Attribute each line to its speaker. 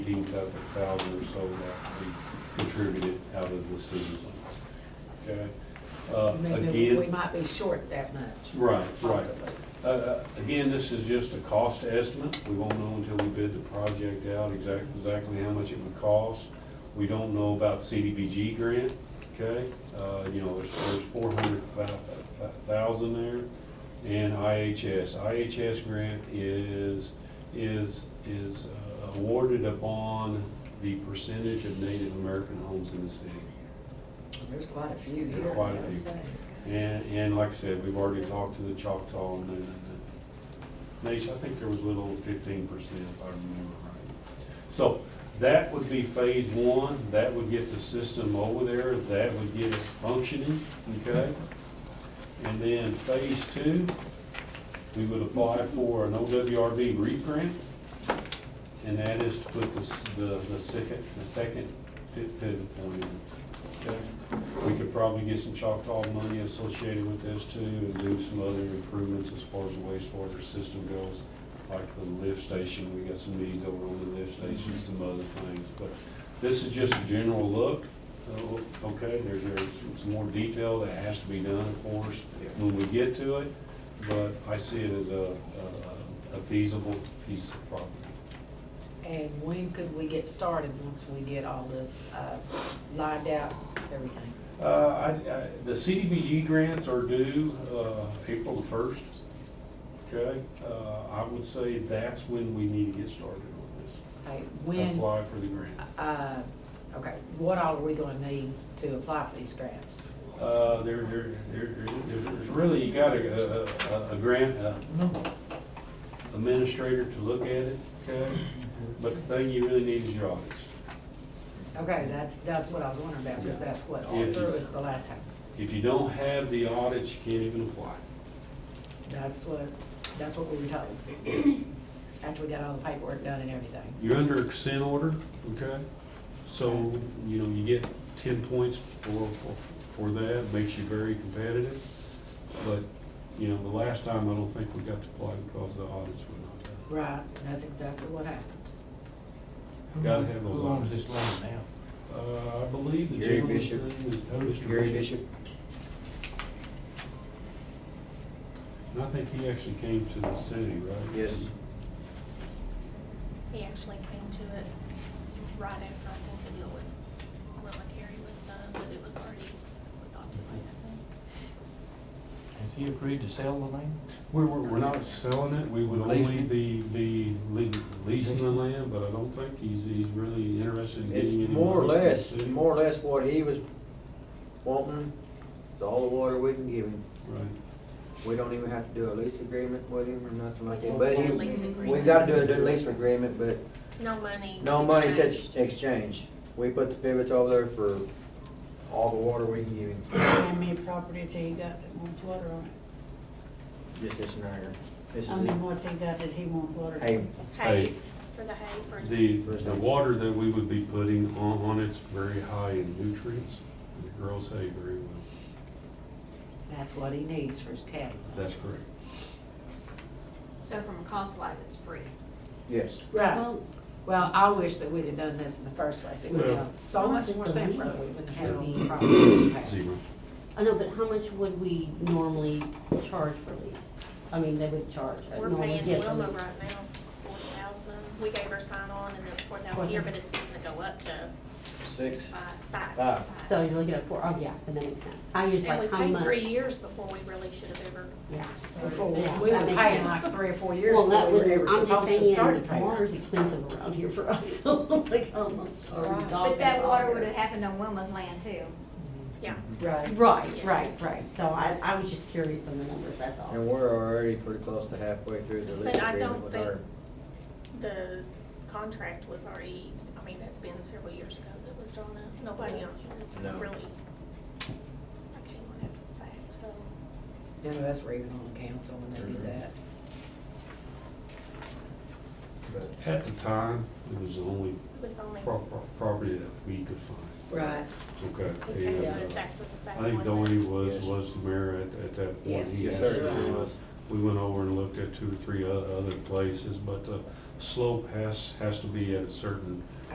Speaker 1: eighteen thousand or so that we contributed out of the citizens. Okay? Uh,
Speaker 2: Maybe we
Speaker 1: Again,
Speaker 2: might be short that much,
Speaker 1: right, right.
Speaker 2: possibly.
Speaker 1: Uh, uh, Again, this is just a cost estimate. We won't know until we bid the project out exactly, exactly how much it would cost. We don't know about CDBG grant, okay? Uh, You know, there's, there's four hundred thousand there. And IHS, IHS grant is, is, is uh, awarded upon the percentage of Native American homes in the city.
Speaker 2: There's quite a few
Speaker 1: There's
Speaker 2: here, I
Speaker 1: quite a
Speaker 2: would
Speaker 1: few.
Speaker 2: say.
Speaker 1: And, and like I said, we've already talked to the Choctaw and, and, and, Nate, I think there was a little fifteen percent, if I remember right. So that would be phase one, that would get the system over there, that would get it functioning, okay? And then phase two, we would apply for an OWRB reprint, and that is to put the, s- the, the second, the second fit pivot point in, okay? We could probably get some Choctaw money associated with this too, and do some other improvements as far as the wastewater system goes, like the lift station, we got some needs over on the lift station, some other things, but this is just a general look, Oh, okay, there's, there's some more detail that has to be done, of course, when we get to it, but I see it as a, a- a feasible piece of property.
Speaker 2: And when could we get started once we get all this uh, lined out, everything?
Speaker 1: Uh, I, I, the CDBG grants are due, uh, April the first. Okay, uh, I would say that's when we need to get started on this.
Speaker 2: Okay, When,
Speaker 1: Apply for the grant.
Speaker 2: uh, okay, what all are we gonna need to apply for these grants?
Speaker 1: Uh, there, there, there, there's, there's really, you got a, a- a, a grant uh, administrator to look at it, okay? But the thing you really need is your audits.
Speaker 2: Okay, that's, that's what I was wondering about, because that's what all
Speaker 1: If you-
Speaker 2: through us the last time.
Speaker 1: If you don't have the audits, you can't even apply.
Speaker 2: That's what, that's what we were told. After we got all the paperwork done and everything.
Speaker 1: You're under a consent order, okay? So, you know, you get ten points for, for, for that, makes you very competitive. But, you know, the last time, I don't think we got to play because the audits were not done.
Speaker 2: Right, that's exactly what happened.
Speaker 1: Gotta have those
Speaker 3: Who owns this land
Speaker 1: Uh, I believe the
Speaker 4: Gary
Speaker 1: gentleman's
Speaker 4: Bishop.
Speaker 1: name is Mr.
Speaker 4: Gary Bishop,
Speaker 1: And I think he actually came to the city, right?
Speaker 4: yes,
Speaker 5: He actually came to it right after I think the deal with Willa Carey was done, but it was already adopted, I think.
Speaker 3: now? Has he agreed to sell the land?
Speaker 1: We're, we're we're not selling it, we would only
Speaker 3: Leasing.
Speaker 1: be, be le- leasing the land, but I don't think he's, he's really interested in
Speaker 4: it's
Speaker 1: getting any money.
Speaker 4: more or
Speaker 1: from the
Speaker 4: less,
Speaker 1: city.
Speaker 4: more or less what he was wanting, it's all the water we can give him.
Speaker 1: Right.
Speaker 4: We don't even have to do a lease agreement with him or nothing like that,
Speaker 5: We
Speaker 4: but
Speaker 5: did a
Speaker 4: he,
Speaker 5: lease
Speaker 4: we
Speaker 5: agreement.
Speaker 4: gotta do a do- lease agreement, but
Speaker 5: No money.
Speaker 4: no money
Speaker 5: exchange.
Speaker 4: said exchange. We put the pivots over there for all the water we can give him,
Speaker 6: How many properties he got that wants water on it?
Speaker 4: just this and that. This
Speaker 6: How
Speaker 4: is
Speaker 6: many
Speaker 4: it.
Speaker 6: what's he got that he wants water? on?
Speaker 4: Hey,
Speaker 5: Hay, for the hay, for.
Speaker 1: The, the water that we would be putting on, on it's very high in nutrients. and It grows hay very well.
Speaker 2: That's what he needs for his cattle.
Speaker 1: That's correct.
Speaker 7: So from a cost wise, it's free.
Speaker 4: yes,
Speaker 2: Right. Well, I wish that we'd have done this in the first place. It would have been so
Speaker 8: Well,
Speaker 2: much
Speaker 8: just
Speaker 2: more
Speaker 8: the
Speaker 2: simpler.
Speaker 8: lease.
Speaker 2: We wouldn't have had all the problems we had.
Speaker 1: Zero.
Speaker 8: I know, but how much would we normally charge for lease? I mean, they would charge, uh,
Speaker 5: We're
Speaker 8: normally
Speaker 5: paying
Speaker 8: get
Speaker 5: Willa
Speaker 8: them.
Speaker 5: right now four thousand. We gave her sign on and then four thousand
Speaker 8: Wasn't-
Speaker 5: here, but it's supposed to go up to
Speaker 4: six,
Speaker 5: five, five.
Speaker 4: Five.
Speaker 8: So you're looking at four, oh, yeah, then that makes sense. I was
Speaker 5: And we
Speaker 8: like, how
Speaker 5: paid
Speaker 8: much?
Speaker 5: three years before we really should have ever.
Speaker 8: Yeah.
Speaker 2: Before,
Speaker 8: Yeah,
Speaker 2: we
Speaker 8: that
Speaker 2: were
Speaker 8: makes
Speaker 2: paying
Speaker 8: sense.
Speaker 2: like three or four years
Speaker 8: Well,
Speaker 2: before
Speaker 8: that
Speaker 2: we were
Speaker 8: would,
Speaker 2: ever
Speaker 8: I'm just
Speaker 2: supposed to start
Speaker 8: saying,
Speaker 2: to pay.
Speaker 8: water's expensive around here for us, so like, how much are we
Speaker 2: Right.
Speaker 7: But
Speaker 8: talking
Speaker 7: that water
Speaker 8: about
Speaker 7: would
Speaker 8: here?
Speaker 7: have happened on Wilma's land too.
Speaker 2: Right.
Speaker 8: Right,
Speaker 5: Yes.
Speaker 8: right, right. So I, I was just curious on the numbers, that's all.
Speaker 4: and we're already pretty close to halfway through the lease
Speaker 5: But I
Speaker 4: agreement
Speaker 5: don't
Speaker 4: with
Speaker 5: think-
Speaker 4: our.
Speaker 5: The contract was already, I mean, that's been several years ago that was drawn up. Nobody on here
Speaker 4: No.
Speaker 5: really. I came on after the fact, so.
Speaker 2: None of us were even on the council when they did
Speaker 4: Mhm.
Speaker 2: that.
Speaker 4: but-
Speaker 1: At the time, it was the only
Speaker 5: It was the only.
Speaker 1: pro- pro- property that we could find.
Speaker 2: Right.
Speaker 5: We
Speaker 1: Okay.
Speaker 5: came
Speaker 1: And
Speaker 5: to
Speaker 1: uh,
Speaker 5: this after the fact.
Speaker 1: I think
Speaker 5: one day.
Speaker 1: Doherty was,
Speaker 4: Yes.
Speaker 1: was the mayor at, at that point.
Speaker 2: Yes.
Speaker 1: He
Speaker 4: Yes,
Speaker 1: actually
Speaker 4: sir, it
Speaker 1: was
Speaker 4: was.
Speaker 1: We went over and looked at two or three o- other places, but the slope has, has to be at a certain